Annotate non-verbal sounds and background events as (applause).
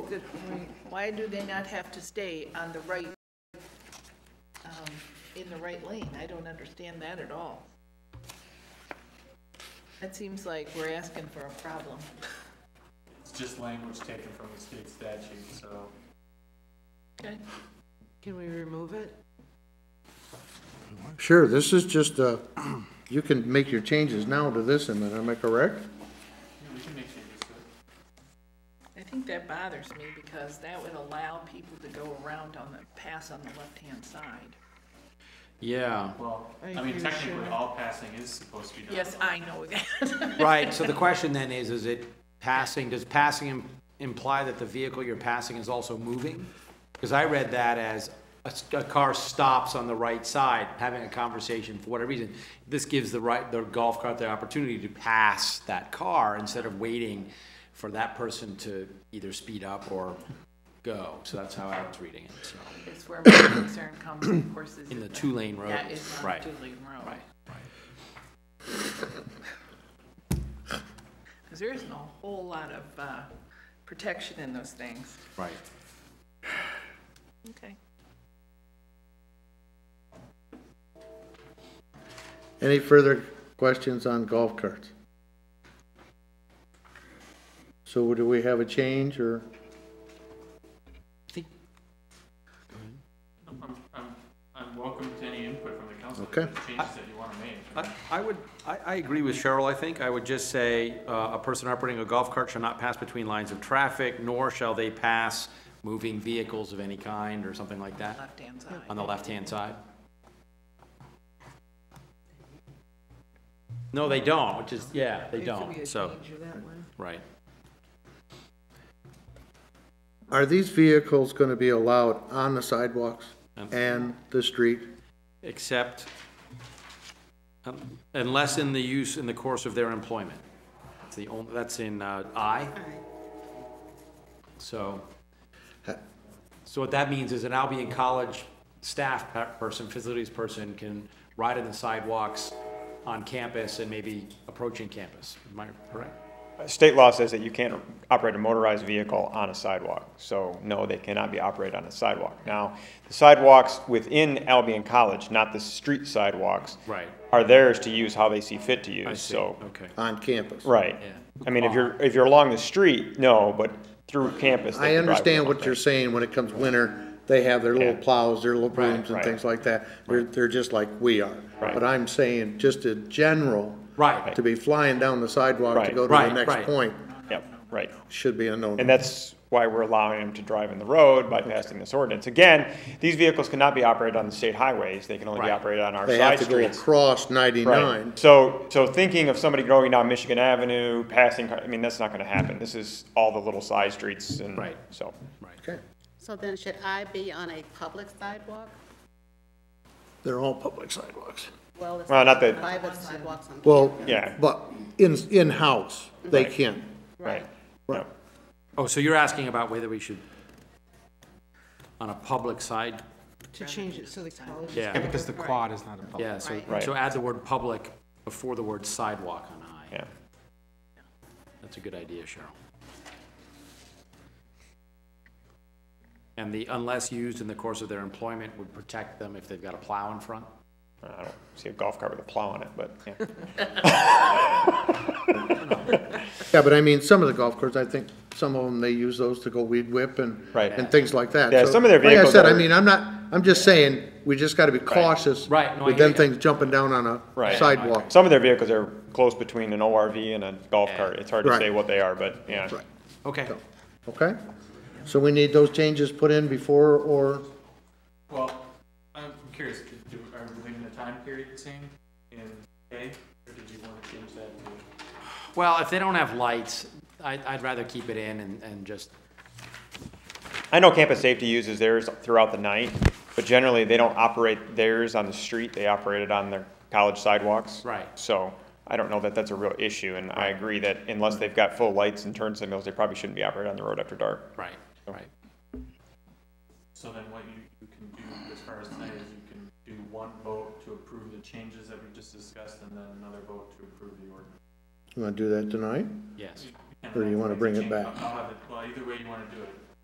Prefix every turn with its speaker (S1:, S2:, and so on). S1: is it, why do they not have to stay on the right, um, in the right lane? I don't understand that at all. That seems like we're asking for a problem.
S2: It's just language taken from the state statute, so
S1: Okay.
S3: Can we remove it?
S4: Sure, this is just, uh, (clears throat) you can make your changes now to this amendment, am I correct?
S2: yeah, we can make changes to it.
S1: I think that bothers me because that would allow people to go around on the, pass on the left-hand side.
S5: Yeah.
S2: Well,
S3: I
S2: I mean,
S3: agree,
S2: technically,
S3: sure.
S2: all passing is supposed to be done.
S1: Yes, I know that.
S5: Right, so the question then is, is it passing, does passing im- imply that the vehicle you're passing is also moving? Because I read that as a, s- a car stops on the right side, having a conversation for whatever reason. This gives the right, the golf cart the opportunity to pass that car instead of waiting for that person to either speed up or go. So that's how I was reading it, so,
S1: It's where my concern comes, of course, is.
S5: in the two-lane road.
S1: That is on
S5: Right.
S1: Dooley Road.
S5: Right,
S1: Because there isn't a whole lot of uh, protection in those things.
S5: right.
S1: Okay.
S4: Any further questions on golf carts? So do we have a change, or,
S5: I think
S2: I'm, I'm, I'm welcome to any input from the council. if
S4: Okay.
S2: there's Changes that you want to make.
S5: I- I would, I, I agree with Cheryl, I think. I would just say, uh, a person operating a golf cart shall not pass between lines of traffic, nor shall they pass moving vehicles of any kind, or something like that,
S1: Left-hand side.
S5: on the left-hand side. No, they don't, which is, yeah, they don't, so, right.
S4: are these vehicles gonna be allowed on the sidewalks and the street?
S5: Except, um, unless in the use, in the course of their employment. That's the only, that's in, uh, I. So, so what that means is an Albion College staff pe- person, facilities person can ride on the sidewalks on campus and maybe approaching campus. Am I correct?
S6: State law says that you can't operate a motorized vehicle on a sidewalk, so no, they cannot be operated on a sidewalk. Now, the sidewalks within Albion College, not the street sidewalks.
S5: Right.
S6: Are theirs to use how they see fit to
S5: I
S6: use,
S5: see.
S6: so.
S5: Okay.
S4: On campus?
S6: Right.
S5: Yeah.
S6: I mean, if you're, if you're along the street, no, but through campus. they
S4: I
S6: can drive
S4: understand
S6: them
S4: what
S6: up
S4: you're
S6: there.
S4: saying, when it comes winter, they have their little
S6: Yeah.
S4: plows, their little brooms and
S6: right.
S4: things like that. They're, they're just like we are.
S6: Right.
S4: But I'm saying, just in general,
S5: Right.
S4: to be flying down the sidewalk to
S6: Right.
S4: go to the
S5: Right,
S4: next
S5: right.
S4: point
S6: Yep, right.
S4: should be a no
S6: And that's why we're allowing them to drive in the road by passing this ordinance. Again, these vehicles cannot be operated on the state highways. They can only be
S5: Right.
S6: operated on our
S4: They have
S6: side
S4: to go
S6: streets.
S4: across
S6: Right.
S4: ninety-nine.
S6: So, so thinking of somebody going down Michigan Avenue, passing, car- I mean, that's not gonna happen. This is all the little side streets and,
S5: Right.
S6: so.
S4: Okay,
S7: So then should I be on a public sidewalk?
S4: they're all public sidewalks.
S7: Well, it's
S6: Well, not that-
S7: private sidewalks on.
S4: Well,
S6: Yeah.
S4: but in, in-house, they can.
S6: Right.
S4: Right.
S5: Oh, so you're asking about whether we should, on a public side,
S3: To change it so the college.
S5: yeah.
S8: Because the quad is not a public.
S5: Yeah, so,
S6: Right.
S5: so add the word public before the word sidewalk on I.
S6: Yeah.
S5: That's a good idea, Cheryl. And the unless used in the course of their employment would protect them if they've got a plow in front.
S6: I don't see a golf cart with a plow on it, but, yeah.
S4: Yeah, but I mean, some of the golf courses, I think, some of them, they use those to go weed whip and,
S6: Right.
S4: and things like that.
S6: Yeah,
S4: So,
S6: some of their
S4: Like I
S6: vehicles
S4: said, I
S6: are-
S4: mean, I'm not, I'm just saying, we just gotta be cautious.
S5: Right, no, I
S4: With
S5: hear
S4: them
S5: you.
S4: things jumping down on
S6: Right.
S4: a sidewalk.
S6: Some of their vehicles are close between an ORV and a golf cart. It's hard to
S4: Right.
S6: say what they are, but, yeah.
S4: Right,
S5: Okay.
S4: okay? So we need those changes put in before or,
S2: Well, I'm curious, did- do, are we leaving the time period the same in A, or did you want to change that to?
S5: Well, if they don't have lights, I, I'd rather keep it in and, and just,
S6: I know campus safety uses theirs throughout the night, but generally, they don't operate theirs on the street. They operate it on their college sidewalks.
S5: Right.
S6: So I don't know that that's a real issue, and I agree that unless they've got full lights and turn signals, they probably shouldn't be operated on the road after dark.
S5: right, right.
S2: So then what you, you can do as far as tonight is you can do one vote to approve the changes that we just discussed and then another vote to approve the ordinance.
S4: you wanna do that tonight?
S5: Yes.
S4: Or you wanna bring it back?
S2: I'll have it, well, either way you wanna do it.